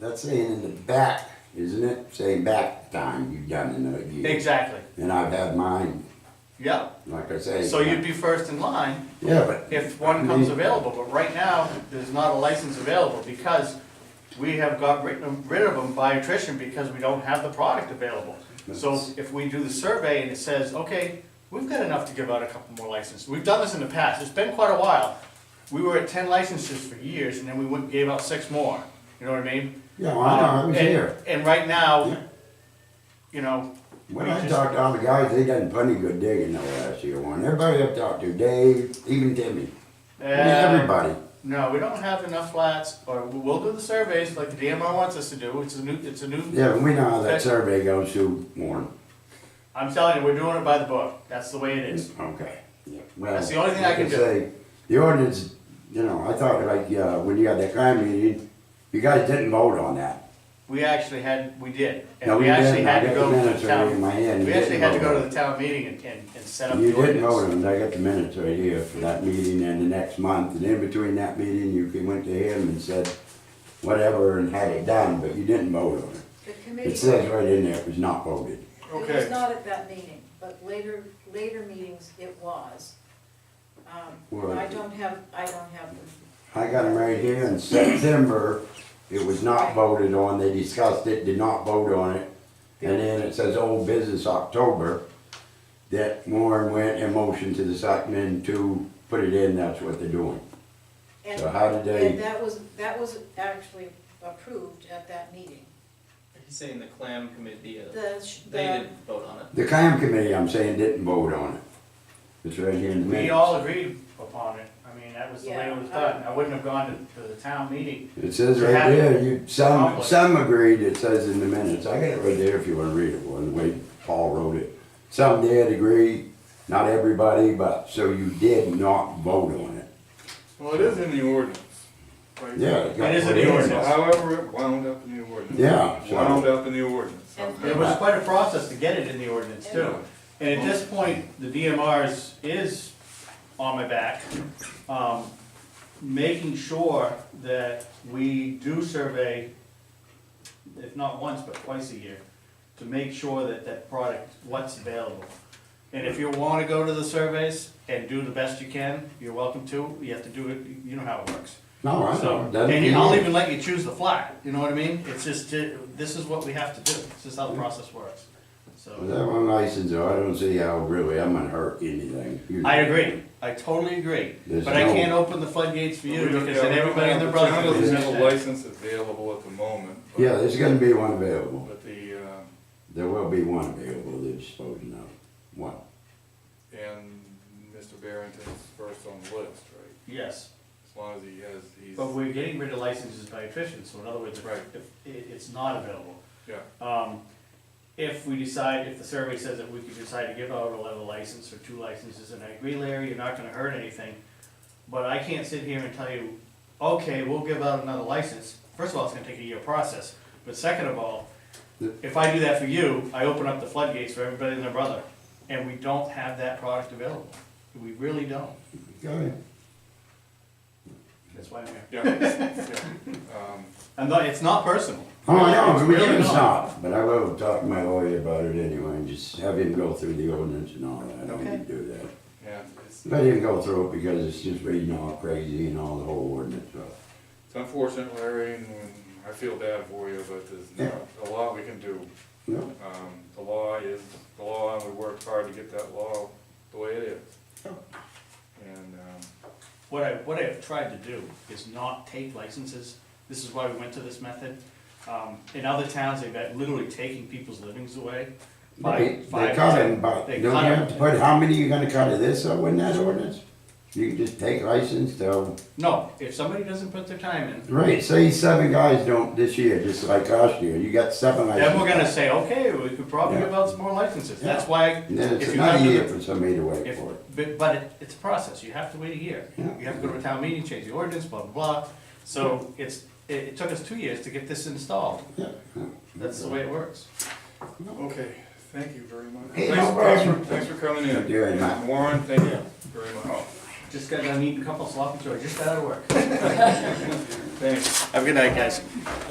That's saying in the back, isn't it? Saying back time, you've done another year. Exactly, And I've had mine, yep. like I say. So you'd be first in line Yeah, but. if one comes available, but right now, there's not a license available because we have got rid rid of them by attrition because we don't have the product available. So if we do the survey and it says, okay, we've got enough to give out a couple more licenses, we've done this in the past, it's been quite a while. We were at ten licenses for years and then we went and gave out six more, you know what I mean? Yeah, well, I know, I was And- here. And right Yeah. now, you know, When we I just- talked to all the guys, they done plenty good digging the last year one. Everybody I've talked to, Dave, even Timmy, uh, everybody. No, we don't have enough flats, or we- we'll do the surveys like the DMR wants us to do, it's a new, it's a new, Yeah, we know how Okay. that survey goes through Warren. I'm telling you, we're doing it by the book, that's the way it is. Okay. Yeah, That's the well, only thing I like can do. say, The ordinance, you know, I thought like, uh, when you had that crime meeting, you guys didn't vote on that. We actually had, we did, No, and we we actually didn't. had I to got go the to minutes the right in my hand. town, we You actually didn't had to vote go on to the town meeting and, and, and set up the You didn't vote ordinance. on it, I got the minutes right here for that meeting and the next month, and in between that meeting, you came- went to him and said whatever and had it done, but you didn't vote on it. The It committee, says right in there, it was not voted. it was not at that meeting, but later, later meetings it was. Um, Well- I don't have, I don't have them. I got them right here in September, it was not voted on, they discussed it, did not vote on it. And then it says old business October, that Warren went and motioned to the selectmen to put it in, that's what they're doing. And- So how did they- And that was, that was actually approved at that meeting. He's saying the clam committee, uh, The, sh- they the, didn't vote on it. The clam committee, I'm saying, didn't vote on it. It's right here in the minutes. We all agreed upon it, I mean, that was the way it was Yeah, I- done, I wouldn't have gone to, to the town meeting. It says You right have there, you, some, Conflict. some agreed, it says in the minutes, I got it right there if you wanna read it, well, the way Paul wrote it. Some did agree, not everybody, but, so you did not vote on it. Well, it is in the ordinance. right? Yeah. it got It is in put the in. ordinance. However, it wound up in the ordinance. Yeah, so- Wound up in the ordinance. And- It was quite a process to get it in the ordinance too. And at this point, the DMRs is on my back, um, making sure that we do survey, if not once, but twice a year, to make sure that that product, what's available. And if you wanna go to the surveys and do the best you can, you're welcome to, you have to do it, you know how it works. No, I So, don't, doesn't and you- I'll mean, even let you choose the flat, you know what I mean? It's just, it- this is what we have to do, this is how the process works, with so. that one license, though, I don't see how really I'm gonna hurt anything. You- I agree, I totally agree, There's but I no- can't open the floodgates for We you don't- because yeah, then we don't everybody and their have- The town brother. doesn't have a is- license available at the moment. but- Yeah, there's gonna be one available, But the, uh, there will be one available, they're disposing of, one. and Mr. Barrington's first on the list, right? Yes, As long as he has, he's, but we're getting rid of licenses by attrition, so in other words, if, Right. if it, it's not available. yeah. Um, if we decide, if the survey says that we could decide to give out a level license or two licenses, and I agree, Larry, you're not gonna hurt anything. But I can't sit here and tell you, okay, we'll give out another license. First of all, it's gonna take a year process, but second of all, The- if I do that for you, I open up the floodgates for everybody and their brother, and we don't have that product available. We really don't. Go ahead. That's why I'm here. Yeah, yeah. Um, And not, it's not personal. Oh, I know, It's we really can not. stop, but I will talk to my lawyer about it anyway, and just have him go through the ordinance and all that, I don't Okay. need to do that. Yeah, it's, Let him go through it because it's just reading all crazy and all the whole ordinance, so. it's unfortunate, Larry, and I feel bad for you, but there's not a lot we can do. No, Um, the law is the law, and we worked hard to get that law the way it is. And, um, What I, what I have tried to do is not take licenses, this is why we went to this method. Um, in other towns, they've got literally taking people's livings away. by- They, by- they cut him, but They don't you cut have to 'em. put, how many you gonna cut of this, so in that ordinance? You can just take license till, No, if somebody doesn't put their time in, right, say seven guys don't this year, just like last year, you got seven licenses. then we're gonna say, okay, we could probably Yeah. give out some more licenses, Yeah. that's why. And then it's if you have another to- year for somebody to wait If, for it. but, but it, it's a process, you have to wait a year. Yeah. You have to go to a town meeting, change the ordinance, blah, blah, blah. So it's, it, it took us two years to get this installed, Yeah, yeah. that's the way it works. okay, thank you very much. Hey, Thanks- no problem. thanks for- Thanks for coming Thank you very much. in. Warren, thank you very much. Just got done eating a couple sloppy joes, just out of work. Thanks. Have a good night, guys.